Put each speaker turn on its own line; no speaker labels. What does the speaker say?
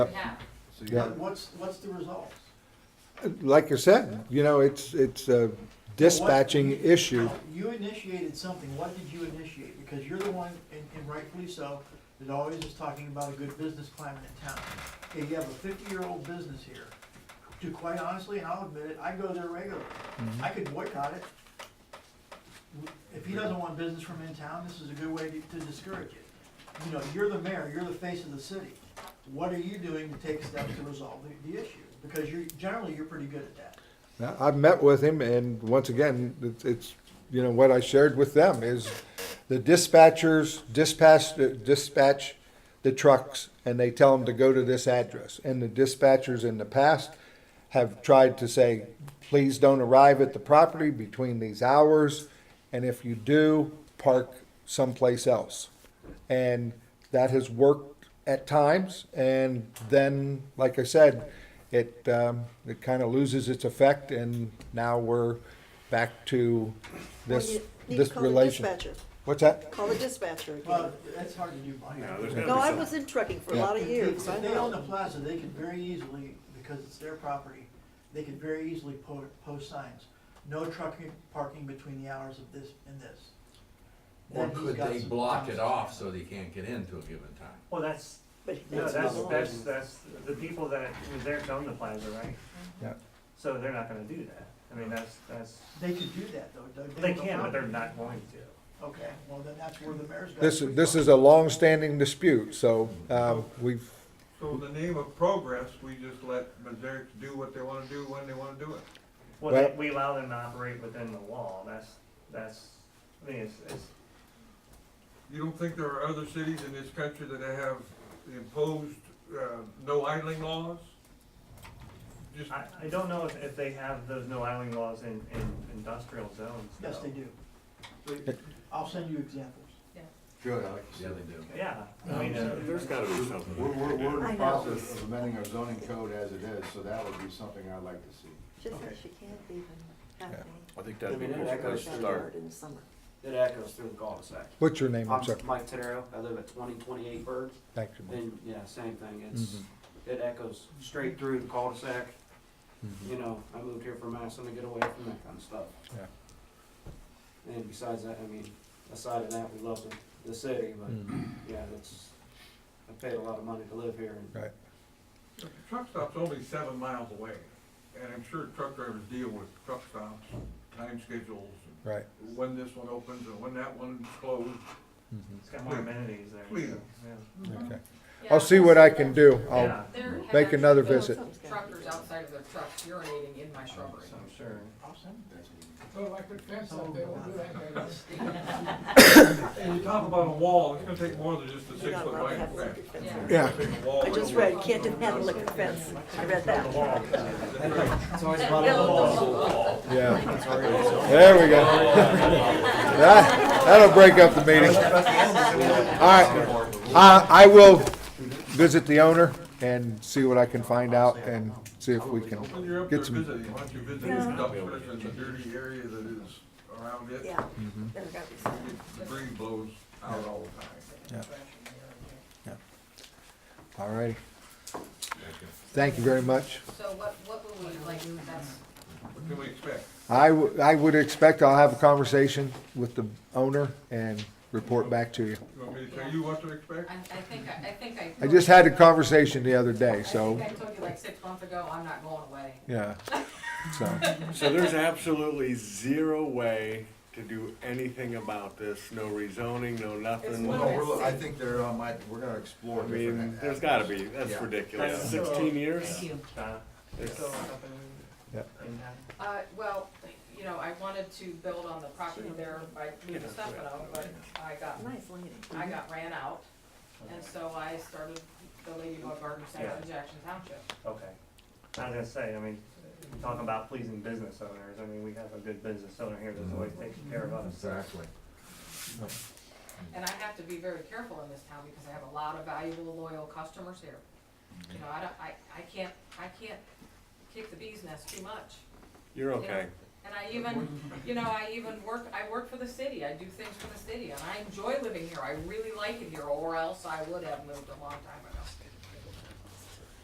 Yeah.
So you
Yeah.
have,
What's, what's the results?
Like I said, you know, it's, it's a dispatching issue.
You initiated something, what did you initiate? Because you're the one, and and rightfully so, that always is talking about a good business climate in town. Okay, you have a fifty-year-old business here, to quite honestly, and I'll admit it, I go there regularly.
Mm-hmm.
I could boycott it. If he doesn't want business from in town, this is a good way to- to discourage it. You know, you're the mayor, you're the face of the city. What are you doing to take steps to resolve the, the issue? Because you're, generally, you're pretty good at that.
Now, I've met with him and once again, it's, it's, you know, what I shared with them is the dispatchers dispatch, dispatch the trucks and they tell them to go to this address. And the dispatchers in the past have tried to say, please don't arrive at the property between these hours. And if you do, park someplace else. And that has worked at times. And then, like I said, it, um, it kind of loses its effect and now we're back to this,
Well, you need to
this
call the
relation.
dispatcher.
What's that?
Call the dispatcher again.
Well, that's hard to do by
you
hand.
know, there's gotta
No,
be
I
some-
was in trucking for a lot of years, I
If they own the
know.
plaza, they could very easily, because it's their property, they could very easily po- post signs. No trucking, parking between the hours of this and this.
Or
Then he's
could
got
they
some
block it
time.
off so they can't get into a given time?
Well, that's,
But
no,
that's
that's,
not allowed.
that's, that's, the people that, they're on the plaza, right?
Yeah.
So they're not gonna do that. I mean, that's, that's,
They could do that though, Doug.
they
don't
can,
allow
but they're
it.
not going to.
Okay, well then that's where the mayor's got.
This,
to be.
this is a long-standing dispute, so, um, we've,
So in the name of progress, we just let Missouri do what they wanna do when they wanna do it.
Well-
Well, they- we allow them to operate within the law, that's, that's, I mean, it's, it's,
You don't think there are other cities in this country that have imposed, uh, no idling laws? Just,
I, I don't know if, if they have those no idling laws in, in industrial zones.
Yes,
though.
they do. I'll send you examples.
Good, Alex.
Yeah, they do.
Yeah, I
Um,
mean, uh,
There's gotta be something.
We're, we're, we're in
I
the
know.
process of amending our zoning code as it is, so that would be something I'd like to see.
She says she can't even have any.
I think that'd be a
Yeah,
good
that
place
goes
to
backyard
start.
In the summer.
It echoes through the cul-de-sac.
what's your name? I'm
I'm
sorry.
Mike Tadaro, I live at twenty twenty-eight Bird,
Thank you. Mike.
and, yeah, same thing, it's,
Mm-hmm.
it echoes straight through the cul-de-sac.
Mm-hmm.
You know, I moved here from Madison to get away from that kind of stuff.
Yeah.
And besides that, I mean, aside of that, we love the, the city, but,
Mm-hmm.
yeah, that's, I paid a lot of money to live here, and
Right.
the truck stop's only seven miles away, and I'm sure truck drivers deal with truck stops, time schedules,
Right.
and when this one opens and when that one's closed.
it's got
Hmm.
more amenities there.
Please.
so, yeah.
Mm-hmm. Okay.
Yeah.
I'll see what I can do. I'll,
Yeah,
Mm-hmm. There have
make
actually
another
been
visit.
Truckers outside of their trucks urinating in my shrubbery.
so I'm sure.
I'll send them.
Well, like the fence up there, we'll do that.
And you talk about a wall, it's gonna take more than just a
You're
six
not
foot
allowed to
right
have
of
a
way.
liquor fence.
Yeah.
yeah,
I just read, you can't have a liquor fence. I read that.
it's always
That
about
build
the
the
law.
wall.
yeah. There we go. That- That'll break up the meeting. All right. Uh, I will visit the owner and see what I can find out and see if we can.
When you're up
Get
there
some-
visiting, why don't you visit the
Yeah.
dumpsters and the dirty area that is around it?
Yeah,
Mm-hmm.
there gotta be some.
The breeze blows out all the time.
All righty. Thank you very much.
So what, what will we, like, that's,
What can we expect?
I, w- I would expect I'll have a conversation with the owner and report back to you.
You want me to tell you what to expect?
I, I think, I I think I.
I just had a conversation the other day,
I
so,
think I told you like six months ago, I'm not going away.
yeah. So,
So there's absolutely zero way to do anything about this, no rezoning, no nothing.
It's-
I
No, we're, I think they're, um, I, we're gonna explore
mean,
different.
there's gotta be, that's
Yeah.
ridiculous,
That's-
sixteen years?
Thank you.
Uh, they're still up in,
Yeah.
in town.
Uh, well, you know, I wanted to build on the property there by moving Stefano, but I got,
Nice lady.
I got ran out. And so I started the Ladybug Garden Center in Jackson Township.
Okay. I was gonna say, I mean, talking about pleasing business owners, I mean, we have a good business owner here that's always taking care of us.
Exactly.
And I have to be very careful in this town because I have a lot of valuable, loyal customers here. You know, I don't, I, I can't, I can't kick the bee's nest too much.
You're
you know?
okay.
And I even, you know, I even work, I work for the city, I do things for the city, and I enjoy living here, I really like it here, or else I would have moved a long time ago.